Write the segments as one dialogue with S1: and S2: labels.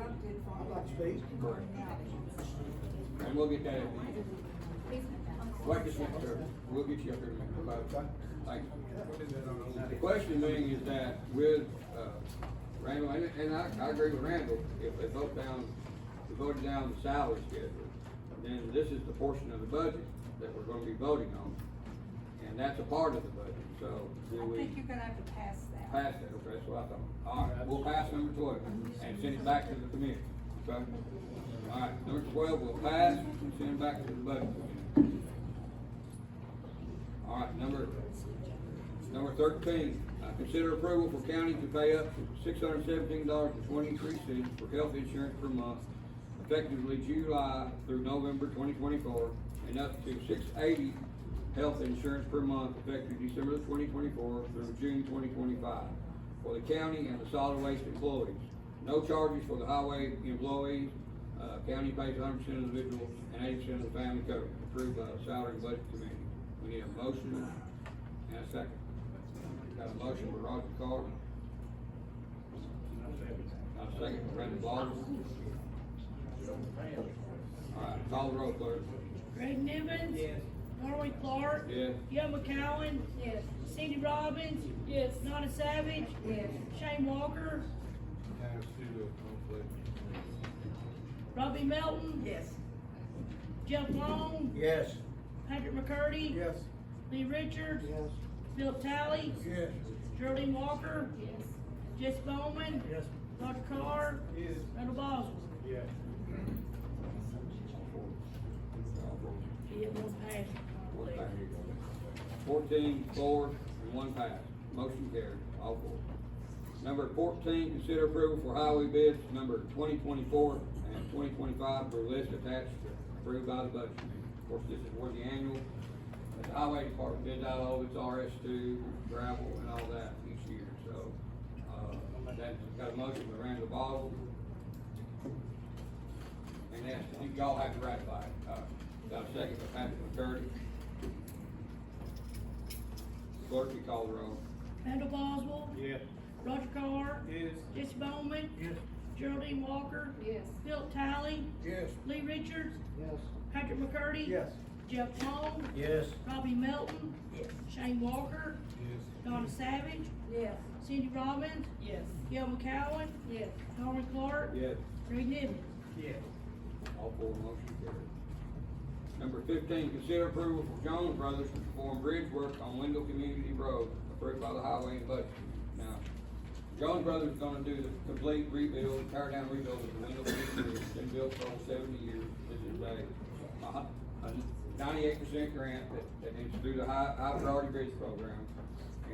S1: I'd like space.
S2: And we'll get that at the end. Like this next Thursday, we'll get you up here and make a vote. Thank you. The question being is that with, uh, Randall, and, and I, I agree with Randall, if they vote down, if they voted down the salary schedule, then this is the portion of the budget that we're gonna be voting on. And that's a part of the budget, so do
S3: I
S2: we?
S3: think you're gonna have to pass that.
S2: Pass it, okay, that's what I thought. All right, we'll pass number twelve and send it back to the committee, okay? All right, number twelve will pass and send it back to the budget committee. All right, number, number thirteen, uh, consider approval for county to pay up to six hundred seventeen dollars and twenty-three cents for health insurance per month effectively July through November twenty twenty-four and up to six eighty health insurance per month effective December twenty twenty-four through June twenty twenty-five for the county and the solid waste employees. No charges for the highway employees. Uh, county pays hundred percent of the individual and eighty percent of the family coverage approved by the salary and budget committee. We need a motion and a second. Got a motion by Roger Carter. Got a second by Randy Boswell. All right, call the roll, clerk.
S4: Greg Nivens. Yes. Darwin Clark.
S2: Yes.
S4: Gil McCowen.
S3: Yes.
S4: Cindy Robbins. Yes. Donna Savage.
S3: Yes.
S4: Shane Walker. Robbie Melton.
S3: Yes.
S4: Jeff Long.
S1: Yes.
S4: Patrick McCurdy.
S1: Yes.
S4: Lee Richards.
S1: Yes.
S4: Philip Talley.
S1: Yes.
S4: Geraldine Walker. Yes. Jess Bowman.
S1: Yes.
S4: Roger Carr.
S1: Yes.
S4: Randall Boswell.
S1: Yes.
S4: It was passed.
S2: Fourteen, four, and one pass. Motion carried, all four. Number fourteen, consider approval for highway bids number twenty twenty-four and twenty twenty-five for list attached approved by the budget. committee. Of course, this is where the annual, the highway department bids out all of its RS two, gravel and all that each year, so. Uh, that's got a motion by Randall Boswell. And that's, you all have to ratify it. Uh, got a second by Patrick McCurdy. Clerk, you call the roll.
S4: Randall Boswell.
S1: Yes.
S4: Roger Carr.
S1: Yes.
S4: Jess Bowman.
S1: Yes.
S4: Geraldine Walker.
S3: Yes.
S4: Philip Talley.
S1: Yes.
S4: Lee Richards.
S1: Yes.
S4: Patrick McCurdy.
S1: Yes.
S4: Jeff Long.
S1: Yes.
S4: Robbie Melton. Shane Walker.
S1: Yes.
S4: Donna Savage.
S3: Yes.
S4: Cindy Robbins.
S3: Yes.
S4: Gil McCowen.
S3: Yes.
S4: Darwin Clark.
S2: Yes.
S4: Greg Nivens.
S1: Yes.
S2: All four motion carried. Number fifteen, consider approval for Jones Brothers to perform bridge work on Wendell Community Road approved by the Highway and Budget. Now, Jones Brothers is gonna do the complete rebuild, tear down rebuild of the Wendell Community Road, It's been built for over seventy years. This is a, a ninety-eight percent grant that, that is through the high, high priority bridge program.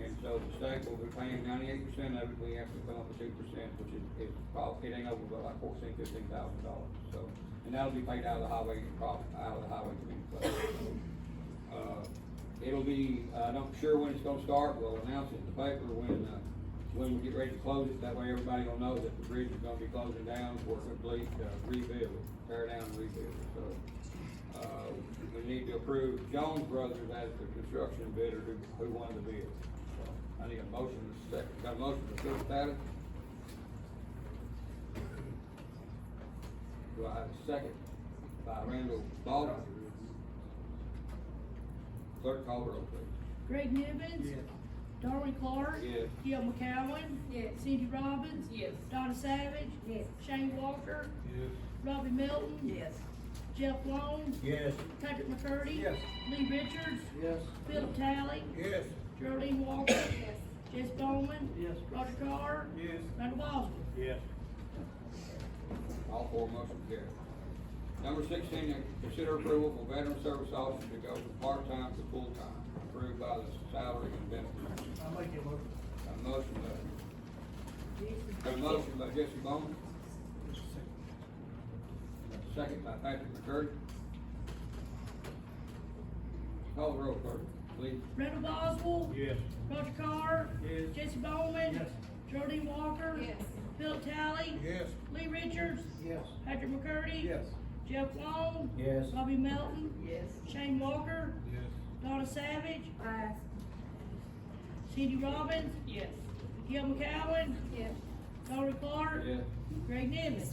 S2: And so the state will be paying ninety-eight percent of it, we have to come up with two percent, which is, is probably, it ain't over, but like fourteen, fifteen thousand dollars, so. And that'll be paid out of the highway, prob- out of the highway committee fund. Uh, It'll be, uh, I'm not sure when it's gonna start, we'll announce it in the paper when, uh, when we get ready to close it, that way everybody will know that the bridge is gonna be closing down for a complete uh, rebuild, tear down and rebuild, so. Uh, we need to approve Jones Brothers as the construction bidder who, who won the bid. So, I need a motion and a second, got a motion to Phil Tattett? Do I have a second by Randall Baldwin? Clerk call the roll, please.
S4: Greg Nivens.
S1: Yes.
S4: Darwin Clark.
S2: Yes.
S4: Gil McCowen.
S3: Yes.
S4: Cindy Robbins.
S3: Yes.
S4: Donna Savage.
S3: Yes.
S4: Shane Walker.
S1: Yes.
S4: Robbie Melton.
S3: Yes.
S4: Jeff Long.
S1: Yes.
S4: Patrick McCurdy.
S1: Yes.
S4: Lee Richards.
S1: Yes.
S4: Philip Talley.
S1: Yes.
S4: Geraldine Walker.
S3: Yes.
S4: Jess Bowman.
S1: Yes.
S4: Roger Carr.
S1: Yes.
S4: Randall Boswell.
S1: Yes.
S2: All four motion carried. Number sixteen, consider approval for veteran service officer to go from part-time to full-time, approved by the salary and benefits.
S1: I'll make it work.
S2: A motion by, a motion by Jesse Bowman, second by Patrick McCurdy. Call the roll, clerk, please.
S4: Randall Boswell.
S1: Yes.
S4: Roger Carr.
S1: Yes.
S4: Jesse Bowman.
S1: Yes.
S4: Geraldine Walker.
S3: Yes.
S4: Philip Talley.
S1: Yes.
S4: Lee Richards.
S1: Yes.
S4: Patrick McCurdy.
S1: Yes.
S4: Jeff Long.
S1: Yes.
S4: Robbie Melton.
S3: Yes.
S4: Shane Walker.
S1: Yes.
S4: Donna Savage.
S3: Ayes.
S4: Cindy Robbins.
S3: Yes.
S4: Gil McCowen.
S3: Yes.
S4: Darwin Clark.
S2: Yes.
S4: Greg Nivens.